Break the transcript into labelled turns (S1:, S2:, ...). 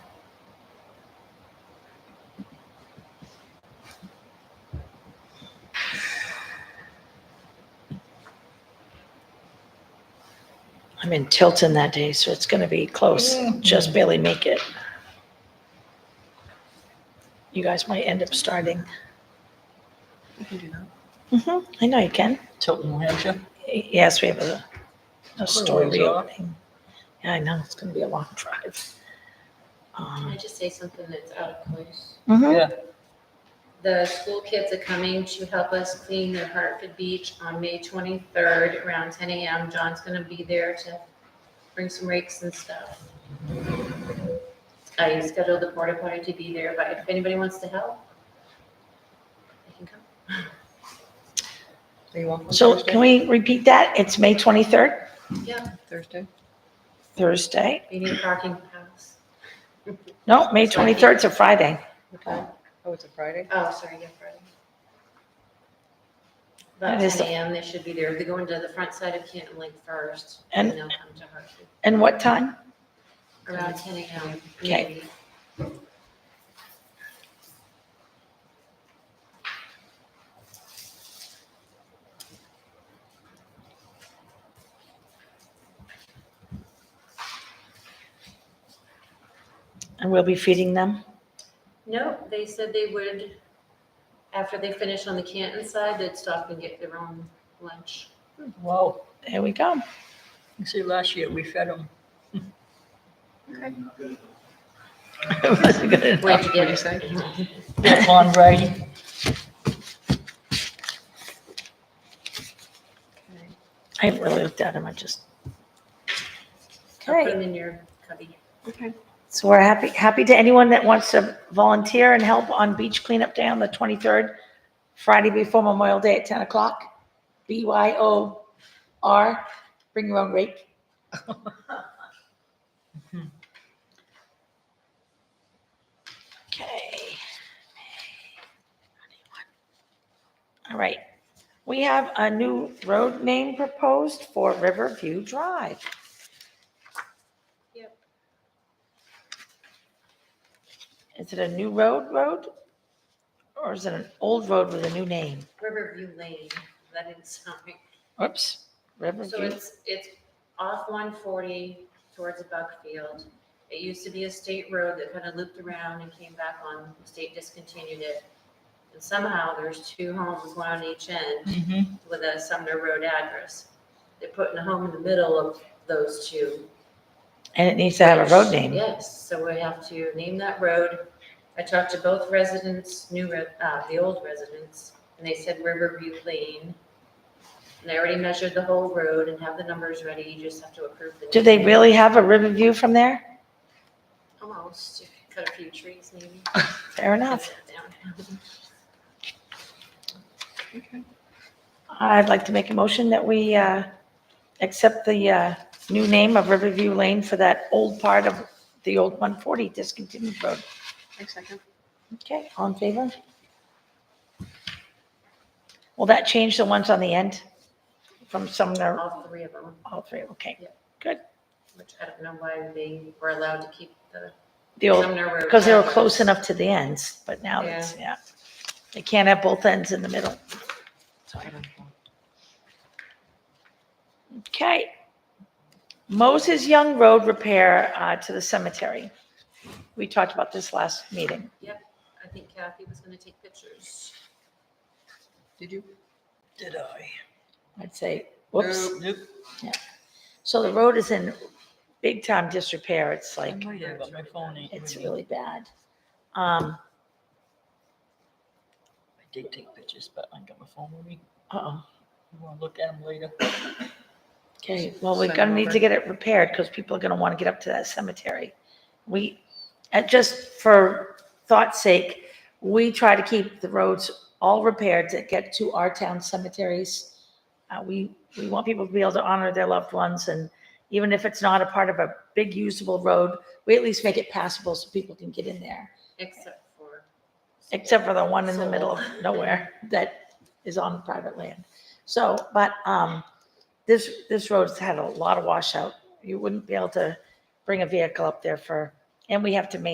S1: I'm in Tilton that day, so it's gonna be close. Just barely make it. You guys might end up starting.
S2: We can do that.
S1: hmm I know you can.
S2: Tilton, New Hampshire.
S1: Yes, we have a, a store
S2: ways off.
S1: reopening. Yeah, I know, it's gonna be a long drive.
S3: Can I
S1: Um,
S3: just say something that's out of place?
S2: Mm-hmm.
S1: mhm.
S3: The school kids are coming to help us clean the Hartford Beach on May 23rd around 10 a.m. John's going to be there to bring some rakes and stuff. I scheduled the porta potty to be there, but if anybody wants to help, they can come.
S2: Are you off on
S1: So
S2: Thursday?
S1: can we repeat that? It's May twenty-third,
S3: Yeah,
S2: Thursday.
S1: Thursday?
S3: we need parking for house.
S1: No, May twenty-third to Friday.
S3: Okay.
S2: Oh, it's a Friday.
S3: Oh, sorry, yeah, Friday. About
S1: That is-
S3: 10 a.m., they should be there. They're going to the front side of Canton Lake first, and
S1: And-
S3: they'll come to Hartford.
S1: And what time?
S3: Around ten AM.
S1: Okay.
S3: maybe.
S1: And we'll be feeding them?
S3: No, they said they would, after they finish on the Canton side, they'd stop and get their own lunch.
S2: Wow.
S1: There we go.
S2: You see, last year we fed them.
S1: Wasn't good enough.
S3: Where'd you
S2: What'd
S3: get
S2: you
S3: it?
S2: say? That one Brady.
S1: I haven't really looked at them, I just.
S3: Put
S1: Okay,
S3: them in your cubby.
S1: so we're happy, happy to anyone that wants to volunteer and help on beach cleanup day on the twenty-third, Friday before Memorial Day at ten o'clock, B Y O R, bring your own rake. Okay. All right, we have a new road name proposed for Riverview Drive.
S3: Yep.
S1: Is it a new road road? Or is it an old road with a new name?
S3: Riverview Lane, that didn't sound right.
S1: Oops,
S3: So
S1: Riverview.
S3: it's, it's off one forty towards Buckfield. It used to be a state road that kind of looped around and came back on, the state discontinued it. And somehow there's two homes, one on each end.
S2: Mm-hmm.
S3: with a Sumner Road address. They're putting a home in the middle of those two.
S1: And it needs to have a road name.
S3: Yes, so we have to name that road. I talked to both residents, new, re- uh, the old residents, and they said Riverview Lane. And I already measured the whole road and have the numbers ready, you just have to approve the.
S1: Do they
S3: name.
S1: really have a Riverview from there?
S3: Almost, cut a few trees maybe.
S1: Fair enough.
S3: Down.
S1: I'd like to make a motion that we uh, accept the uh, new name of Riverview Lane for that old part of the old 140 discontinued road. Okay, all in favor? Will that change the ones on the end from Sumner,
S3: All three of them,
S1: all three, okay?
S3: which I don't know why they were allowed to keep the
S1: The old,
S3: Sumner Road.
S1: because they were close
S3: address.
S1: enough to the ends, but now it's, yeah. They can't have both ends in the middle. Okay. Moses Young Road repair uh, to the cemetery. We talked about this last meeting.
S3: I think Kathy was gonna take pictures.
S2: Did you? Did I?
S1: I'd say, whoops.
S2: Nope, nope.
S1: So the road is in big time disrepair. It's
S2: I
S1: like,
S2: might have, but Oh my phone ain't.
S1: it's
S2: ringing.
S1: really bad. Um,
S2: I did take pictures, but I ain't got my phone with me.
S1: uh-oh.
S2: You wanna look at them later?
S1: Okay, well, we're
S2: Send
S1: gonna need
S2: over.
S1: to get it repaired because people are gonna want to get up to that cemetery. We, and just for thought's sake, we try to keep the roads all repaired to get to our town cemeteries. Uh, we, we want people to be able to honor their loved ones and even if it's not a part of a big usable road, we at least make it passable so people can get in there.
S3: Except for.
S1: except for the one in the middle of nowhere that is on private land. So, but, um, this, this road's had a lot of washout. You wouldn't be able to bring a vehicle up there for, and we have to maintain